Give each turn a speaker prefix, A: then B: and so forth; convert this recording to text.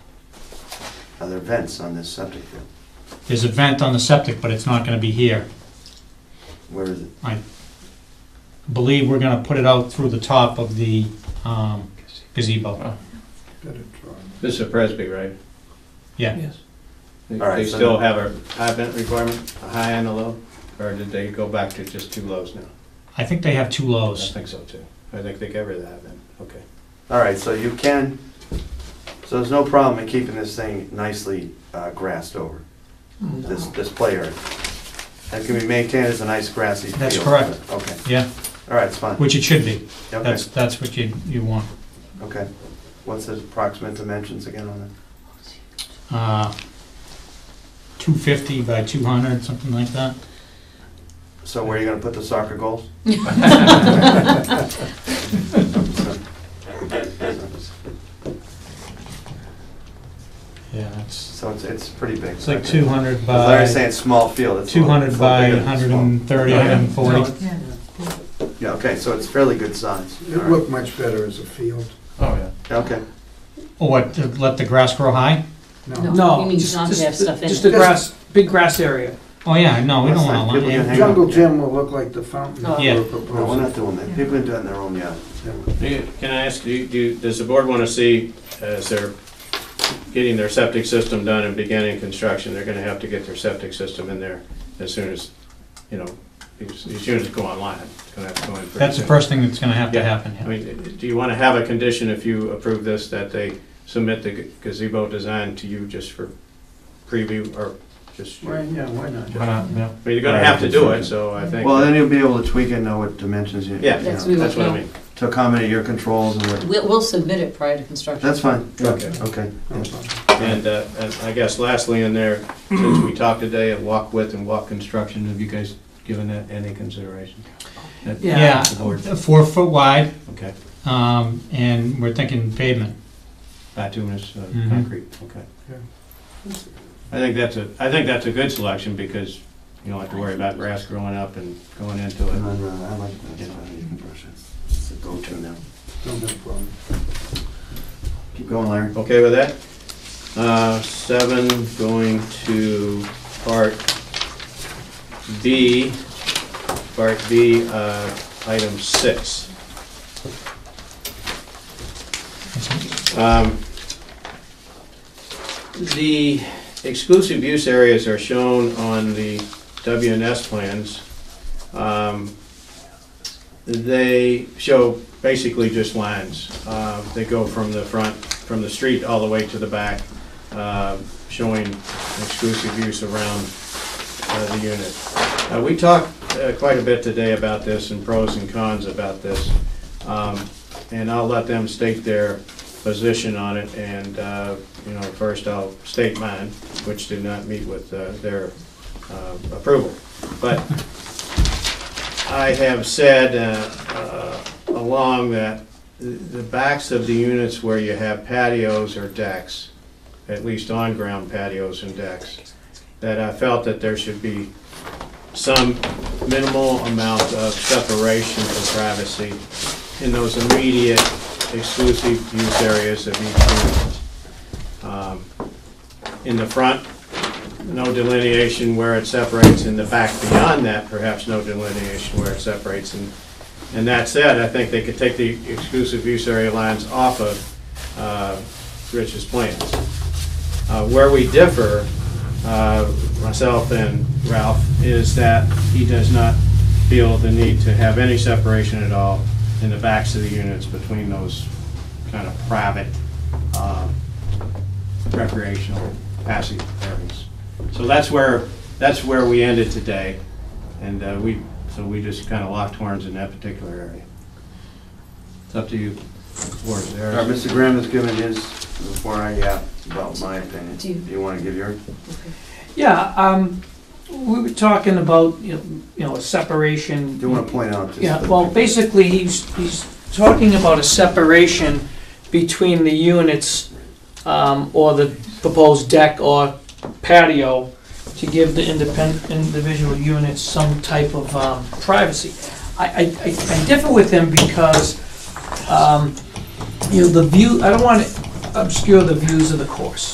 A: Are there vents on this septic field?
B: There's a vent on the septic, but it's not gonna be here.
A: Where is it?
B: Believe we're gonna put it out through the top of the um, gazebo.
A: Oh.
C: This is Presby, right?
B: Yeah.
D: Yes.
C: They-
A: All right,
C: They
A: so-
C: still have a high vent requirement, a high and a low, or did they go back to just two lows now?
B: I think they have two
C: I
B: lows.
C: think so too. I think they get rid of that then, okay.
A: All right, so you can, so there's no problem in keeping this thing nicely uh, grassed over,
B: Mm-hmm.
A: this, this play area. That can be maintained as a nice grassy field.
B: That's correct.
A: Okay,
B: Yeah,
A: all right, it's fine.
B: which it should be.
A: Okay,
B: That's, that's what you, you want.
A: okay. What's the approximate dimensions again on that?
B: Uh, 250 by 200, something like that.
A: So where are you gonna put the soccer goals?
B: Yeah, it's,
A: So it's, it's pretty big.
B: it's like 200
A: As Larry's
B: by,
A: saying, small field. it's a little-
B: 200
A: it's a
B: by
A: little bigger than small.
B: 130,
A: Yeah.
B: 140.
D: Yeah.
A: Yeah, okay, so it's fairly good size.
E: It
A: All right.
E: looked much better as a field.
C: Oh, yeah.
A: Okay,
B: Or Oh, what, to let the grass grow high?
E: No,
F: You
D: No,
F: mean
D: just,
F: not to
D: just
F: have
D: the-
F: stuff in
D: just
F: it.
D: the grass, big grass area.
B: Oh, yeah, no, we
A: That's
B: don't
A: fine.
B: want to.
A: People can hang
E: jungle gym will look like the fountain
F: Oh.
E: that
B: Yeah.
E: we're
A: no, we're
E: proposing.
A: not doing that. People can do it in their own yard.
C: Do you- Can I ask, do you- do, you- does the board want to see, as they're getting their septic system done and beginning construction, they're going to have to get their septic system in there as soon as, you know, as as soon as it go online, it's going to have to go in pretty
B: That's the
C: soon.
B: first thing that's gonna have to
C: Yeah.
B: happen,
C: I
B: yeah.
C: mean, do you want to have a condition if you approve this, that they submit the gazebo design to you just for preview or just? I
E: Why,
C: mean,
E: yeah, why not?
C: you're going to have to do it, so I think.
A: Well, then you'll be able to tweak it, and know what dimensions you, you
C: Yeah.
F: That's
A: know,
F: we
C: That's
F: would
C: what I
F: know.
C: mean.
A: to accommodate your controls and what,
F: We'll, we'll submit it prior to construction.
A: that's fine.
C: Okay.
A: Okay.
E: No problem.
C: And, uh, and I guess lastly in there, since we talked today of walk width and walk construction, have you guys given that any consideration? That-
D: Yeah.
B: Yeah,
C: The board,
B: four foot wide,
C: okay,
B: um, and we're thinking pavement.
C: bituminous uh,
B: Mhm.
C: concrete, okay.
E: Yeah.
C: I think that's a, I think that's a good selection because you don't have to worry about grass growing up and going into
A: And
C: it.
A: then, uh, I like that, so you can brush it. It's a go-to now.
E: No big problem.
A: Keep going, Larry.
C: Okay with that? Uh, seven, going to part B, part B, uh, item six. Um, The exclusive use areas are shown on the WNS plans. Um, They show basically just lines. Uh, They go from the front, from the street all the way to the back, uh, showing exclusive use around uh, the unit. Uh, We talked uh, quite a bit today about this and pros and cons about this. Um, And I'll let them state their position on it, and, uh, you know, first I'll state mine, which did not meet with uh, their uh, approval. But I have said uh, uh, along that th- the backs of the units where you have patios or decks, at least on-ground patios and decks, that I felt that there should be some minimal amount of separation for privacy in those immediate exclusive use areas of each unit. Um, In the front, no delineation where it separates, in the back beyond that, perhaps no delineation where it separates. And and that said, I think they could take the exclusive use area lines off of uh, Rich's plans. Uh, Where we differ, uh, myself and Ralph, is that he does not feel the need to have any separation at all in the backs of the units between those kind of private uh, recreational passive areas. So that's where, that's where we ended today, and uh, we, so we just kind of locked horns in that particular area. It's up to you, board,
A: All right,
C: there.
A: Mr. Graham has given his before I, yeah, about my opinion.
F: Do you-
A: Do you want to give yours?
D: Yeah, um, we were talking about, you know, you know, a separation.
A: Do you want to point out? just
D: Yeah,
A: the-
D: well, basically, he's, he's talking about a separation between the units, um, or the proposed deck or patio to give the independent, individual units some type of, um, privacy. I, I, I I differ with him because, um, you know, the view, I don't wanna obscure the views of the course.